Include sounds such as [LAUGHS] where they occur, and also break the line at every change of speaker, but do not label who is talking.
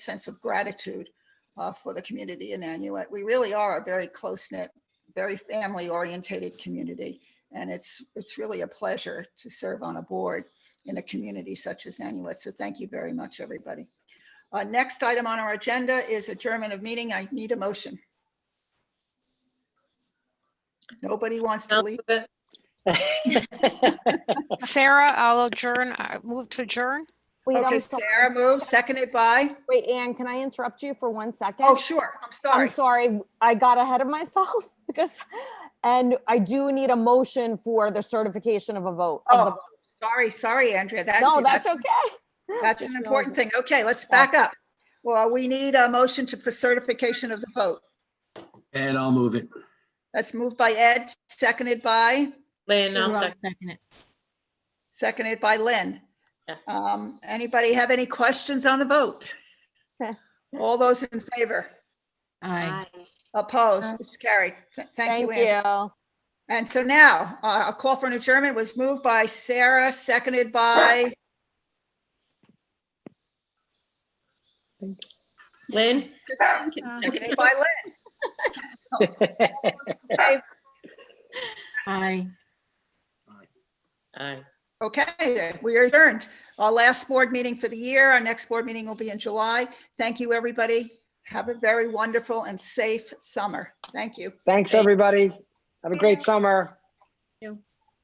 sense of gratitude uh, for the community in Nanuet. We really are a very close knit, very family orientated community. And it's, it's really a pleasure to serve on a board in a community such as Nanuet. So thank you very much, everybody. Uh, Next item on our agenda is adjournment of meeting. I need a motion. Nobody wants to leave.
Sarah, I'll adjourn, I move to adjourn.
Wait,
Okay,
I'm sorry.
Sarah moves, seconded by,
Wait, Anne, can I interrupt you for one second?
oh, sure, I'm sorry.
I'm sorry, I got ahead of myself [LAUGHS] because, and I do need a motion for the certification of a vote. of the-
Oh, sorry, sorry, Andrea. That-
No, that's okay.
That's an important thing. Okay, let's back up. Well, we need a motion to, for certification of the vote.
And I'll move it.
That's moved by Ed, seconded by,
Lynn, I'll
Sure, I'll
second.
second it.
seconded by Lynn.
Yes.
Um, anybody have any questions on the [LAUGHS] vote? All those in favor?
Aye.
Opposed? It's carried. Th- Thank you,
Thank
Ann.
you.
And so now, uh, a call for an adjournment was moved by Sarah, seconded by,
Lynn,
seconded by Lynn.
Aye.
aye.
Okay, we are adjourned. Our last board meeting for the year, our next board meeting will be in July. Thank you, everybody. Have a very wonderful and safe summer. Thank you.
Thanks, everybody. Have a great summer.